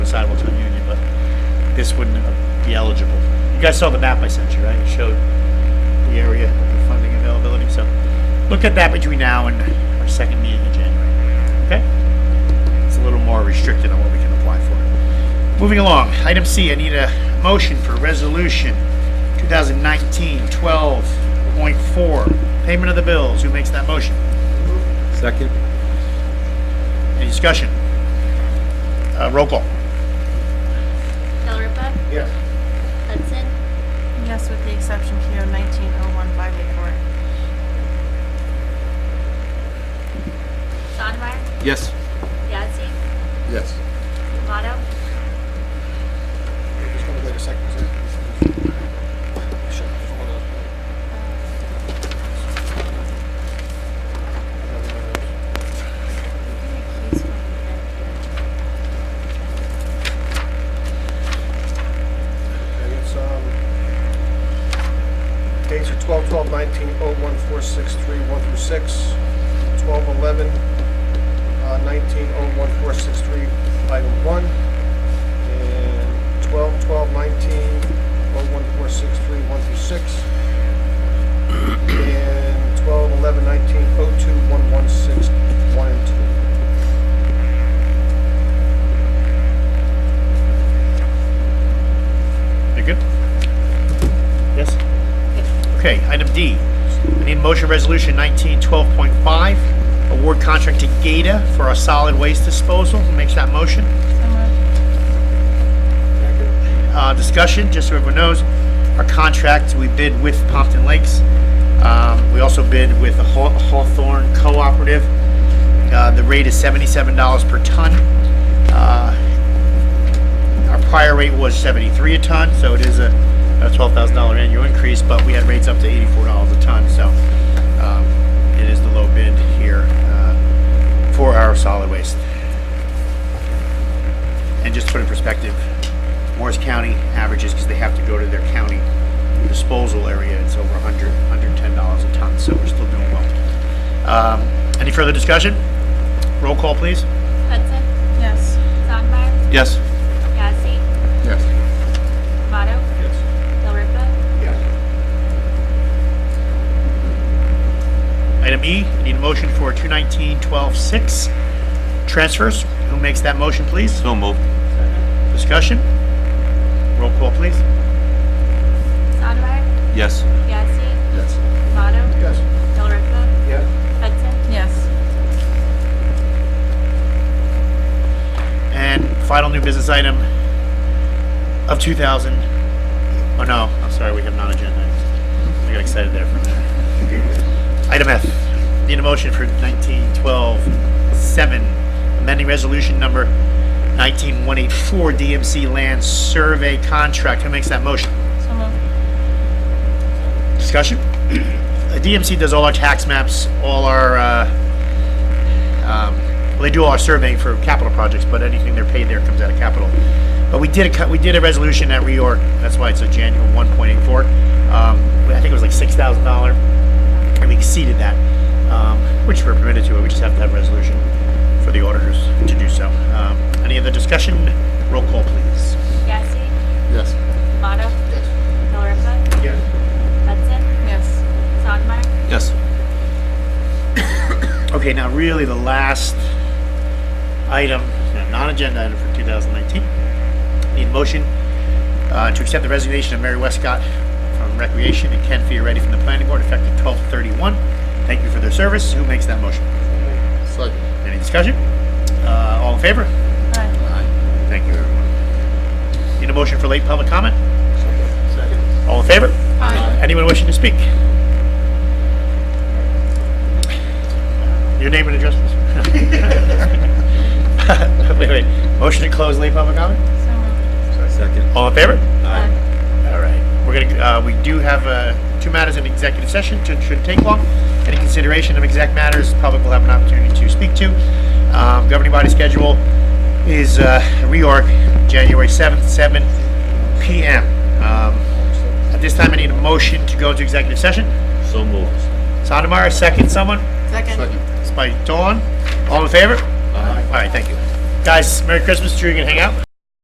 this wouldn't uh, be eligible. You guys saw the map I sent you, right? It showed the area, the funding availability, so look at that between now and our second meeting in January, okay? It's a little more restricted on what we can apply for. Moving along, item C, I need a motion for resolution 2019-12.4, payment of the bills. Who makes that motion? Second? Any discussion? Uh, roll call. Delripa, Yes. Hudson, Yes, with the exception PO nineteen oh one five eight four. Sondemire, Yes. Yazdi, Yes. Tomato, Okay, it's, um, dates are 12, 12, 19, 01463, 1 through 6, 12, 11, uh, 19, 01463, item 1, and 12, 12, 19, 01463, 1 through 6, and 12, 11, 19, 02, 116, 1 and 2. You good? Yes? Okay, item D. I need a motion resolution 1912.5, award contract to Gata for our solid waste disposal. Who makes that motion? So moved. uh, discussion, just so everyone knows, our contract, we bid with Pompton Lakes. Um, We also bid with the Haw- Hawthorne Cooperative. Uh, The rate is seventy-seven dollars per ton. Uh, Our prior rate was seventy-three a ton, so it is a twelve thousand dollar annual increase, but we had rates up to eighty-four dollars a ton, so um, it is the low bid here uh, for our solid waste. And just to put in perspective, Morris County averages, because they have to go to their county disposal area, it's over 100, $110 a ton, so we're still doing well. Um, Any further discussion? Roll call, please. Hudson, Yes. Sondemire, Yes. Yazdi, Yes. Tomato, Yes. Delripa, Item E, I need a motion for 219-12-6 transfers. Who makes that motion, please? So moved. Discussion? Roll call, please. Sondemire, Yes. Yazdi, Yes. Tomato, Yes. Delripa, Yes. Hudson, Yes. And final new business item of 2000, oh no, I'm sorry, we have non-agenda. items. I got excited there for a minute. Item F, need a motion for 1912-7, amending resolution number 19184 DMC land survey contract. Who makes that motion? So moved. Discussion? Uh, DMC does all our tax maps, all our, uh, um, well, they do all our surveying for capital projects, but anything they're paid there comes out of capital. But we did a, cut- we did a resolution at reorg, that's why it's a January 1.84. Um, I think it was like $6,000, and we exceeded that, um, which we're permitted to, we just have to have a resolution for the auditors to do so. Um, Any other discussion? Roll call, please. Yazdi, Yes. Tomato, Delripa, Yes. Hudson, Yes. Sondemire, Yes. Okay, now really the last item, non-agenda item for 2019. Need a motion uh, to accept the resignation of Mary Westcott from Recreation and Ken Fioretti from the Planning Board effective 12/31. Thank you for their service. Who makes that motion? Second. Any discussion? Uh, All in favor? Aye. Thank you, everyone. Need a motion for late public comment? All in favor? Aye. Anyone wishing to speak? Your name and address, please. Wait, wait. Motion to close late public comment? So moved. Second. All in favor? Aye. All right. We're gonna, uh, we do have, uh, two matters in executive session, should, shouldn't take long. Any consideration of exact matters, public will have an opportunity to speak to. Um, governing body schedule is, uh, reorg, January seventh, seven PM. Um, at this time, I need a motion to go into executive session. So moved. Sotomayor, second someone? Second. It's by Dawn. All in favor? All right, thank you. Guys, Merry Christmas, sure you can hang out?